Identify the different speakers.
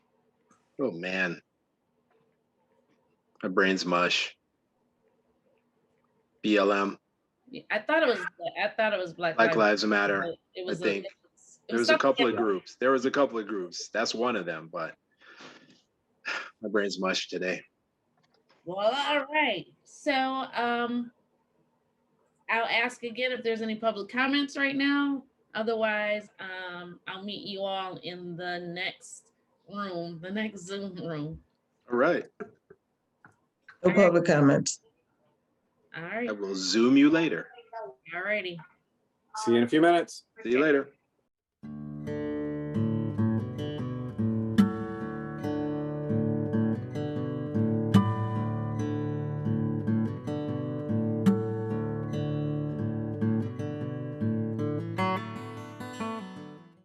Speaker 1: Oh man, my brain's mush. BLM,
Speaker 2: Yeah, I thought it was, I thought it was Black.
Speaker 1: Black Lives Matter.
Speaker 2: but It was. a-
Speaker 1: think.
Speaker 2: it was- it
Speaker 1: There was a
Speaker 2: something
Speaker 1: couple of
Speaker 2: different.
Speaker 1: groups. There was a couple of groups. That's one of them, but my brain's mush today.
Speaker 2: Well, all right. So, um, I'll ask again if there's any public comments right now. Otherwise, um, I'll meet you all in the next room, the next Zoom room.
Speaker 1: All right,
Speaker 3: No public comments.
Speaker 2: All right,
Speaker 1: I will zoom you later.
Speaker 2: all righty.
Speaker 4: See you in a few minutes.
Speaker 1: See you later.